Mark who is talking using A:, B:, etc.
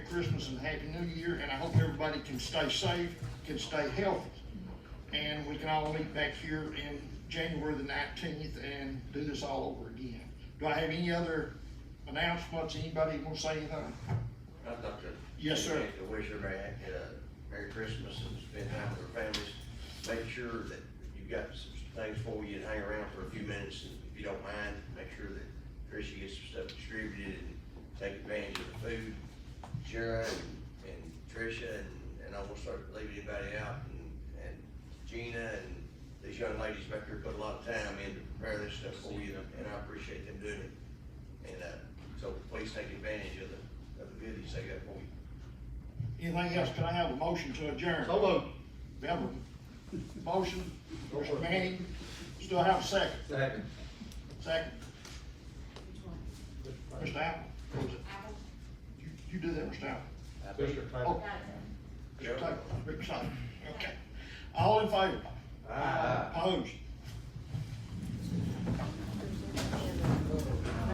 A: Christmas and Happy New Year, and I hope everybody can stay safe, can stay healthy. And we can all meet back here in January the nineteenth and do this all over again. Do I have any other announcements? Anybody want to say anything?
B: I'd like to.
A: Yes, sir.
B: to wish everybody uh, Merry Christmas and spend time with their families. Make sure that you've got some things for you to hang around for a few minutes, and if you don't mind, make sure that Tricia gets some stuff distributed and take advantage of the food. Shara and- and Tricia, and, and I won't start leaving anybody out, and, and Gina, and these young ladies back here put a lot of time in to prepare this stuff for you, and I appreciate them doing it. And, uh, so please take advantage of the, of the goodies they got for you.
A: Anything else? Can I have a motion to adjourn?
C: moved.
A: We have a motion, Mr. Manning, still have a second,
C: Second.
A: second, Mr. Apple, what was it? You, you do that, Mr. Apple.
C: Mr.
A: Oh, Mr. Taylor, Mr. Taylor, okay. All in favor?
C: Aye.
A: Opposed?